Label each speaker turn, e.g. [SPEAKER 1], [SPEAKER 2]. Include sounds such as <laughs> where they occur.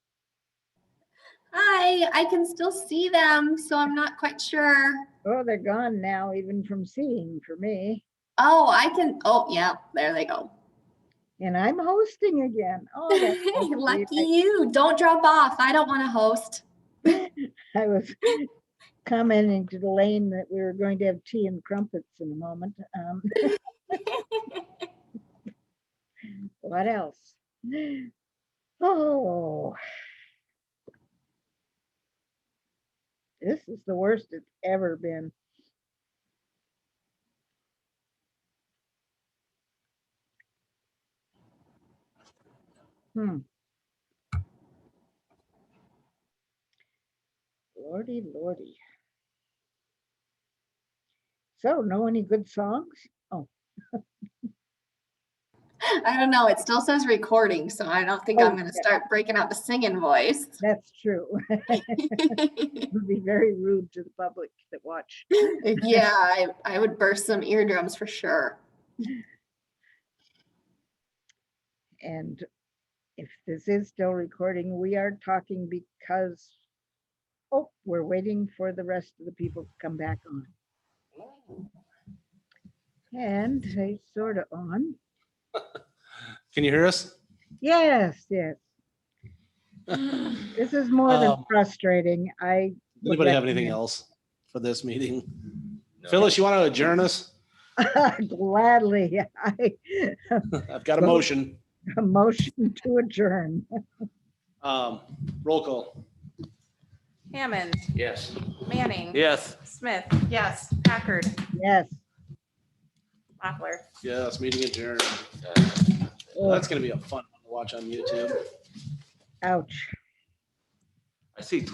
[SPEAKER 1] away. I can still see them, so I'm not quite sure.
[SPEAKER 2] Oh, they're gone now, even from seeing for me.
[SPEAKER 1] Oh, I can. Oh, yeah, there they go.
[SPEAKER 2] And I'm hosting again.
[SPEAKER 1] <laughs>
[SPEAKER 2] Oh, that's so sweet.
[SPEAKER 1] Lucky you. Don't drop off. I don't want to host.
[SPEAKER 2] I was <laughs> commenting to Elaine that we were going to have tea and crumpets in a moment. um, What else? Oh. This is the worst it's ever been. Hmm. Lordy, lordy. So, know any good songs?
[SPEAKER 1] I don't know. It still says recording, so I don't think
[SPEAKER 2] Oh,
[SPEAKER 1] I'm going to start breaking out the singing voice. <laughs>
[SPEAKER 2] That's true. <laughs> It would be very rude to the public that watched.
[SPEAKER 1] yeah, I, I would burst some eardrums for sure.
[SPEAKER 2] And if this is still recording, we are talking because, oh, we're waiting for the rest of the people to come back on. And they sort of on.
[SPEAKER 3] Can you hear us?
[SPEAKER 2] Yes, yes. This is more than
[SPEAKER 3] Um,
[SPEAKER 2] frustrating. I, Would
[SPEAKER 3] Anybody
[SPEAKER 2] like
[SPEAKER 3] have
[SPEAKER 2] to <laughs>
[SPEAKER 3] anything
[SPEAKER 2] hear.
[SPEAKER 3] else for this meeting? Phyllis, you want to adjourn us?
[SPEAKER 2] gladly, <laughs> I
[SPEAKER 3] I've got a
[SPEAKER 2] Well-
[SPEAKER 3] motion.
[SPEAKER 2] a motion to adjourn. <laughs>
[SPEAKER 3] Um, roll call.
[SPEAKER 4] Hammond,
[SPEAKER 3] Yes.
[SPEAKER 4] Manning.
[SPEAKER 3] Yes.
[SPEAKER 4] Smith. Yes. Packard,
[SPEAKER 2] Yes.
[SPEAKER 4] Mochler.
[SPEAKER 3] Yes, meeting adjourned. That's gonna be a fun one to watch on YouTube.
[SPEAKER 2] Ouch.
[SPEAKER 5] I see